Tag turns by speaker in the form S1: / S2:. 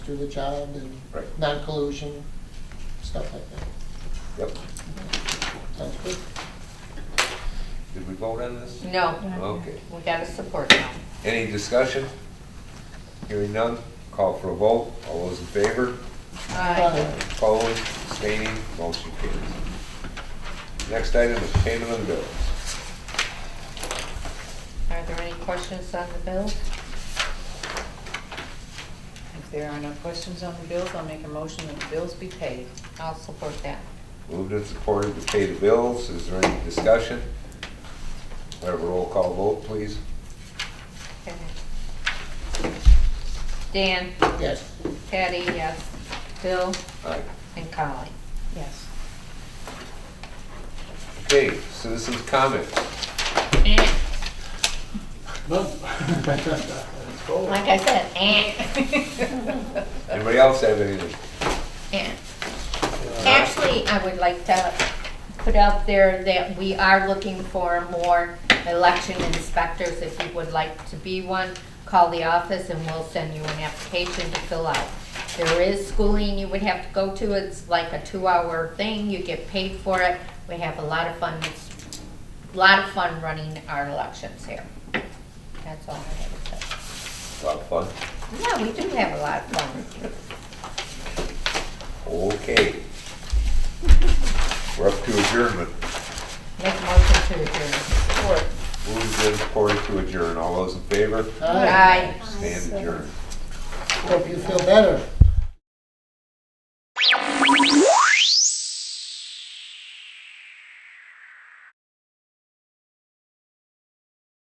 S1: do the job and
S2: Right.
S1: non-collusion, stuff like that.
S2: Yep.
S1: Sounds good?
S2: Did we vote on this?
S3: No,
S2: Okay.
S3: we gotta support now.
S2: Any discussion? Hearing none, call for a vote. All those in favor?
S3: Aye.
S2: Opposed, abstaining, motion carries. Next item is payment of bills.
S3: Are there any questions on the bills?
S4: If there are no questions on the bills, I'll make a motion that the bills be paid.
S3: I'll support that.
S2: Moved and supported to pay the bills. Is there any discussion? Whatever roll call vote, please.
S3: Okay. Dan,
S1: Yes.
S3: Patty, yes. Bill
S2: Aye.
S3: and Colleen.
S4: Yes.
S2: Okay, citizens' comments.
S3: Eh,
S5: Let's go.
S3: Like I said, eh.
S2: Anybody else have anything?
S3: Eh.
S5: Uh,
S3: Actually, I would like to put out there that we are looking for more election inspectors. If you would like to be one, call the office and we'll send you an application to fill out. There is schooling you would have to go to. It's like a two-hour thing. You get paid for it. We have a lot of fun, a lot of fun running our elections here. That's all I have to say.
S2: A lot of fun.
S3: Yeah, we do have a lot of fun.
S2: Okay. We're up to adjournment.
S3: Make a motion to adjourn. Support.
S2: Moved and supported to adjourn. All those in favor?
S1: All right.
S3: Aye.
S2: Stand adjourned.
S1: Hope you feel better.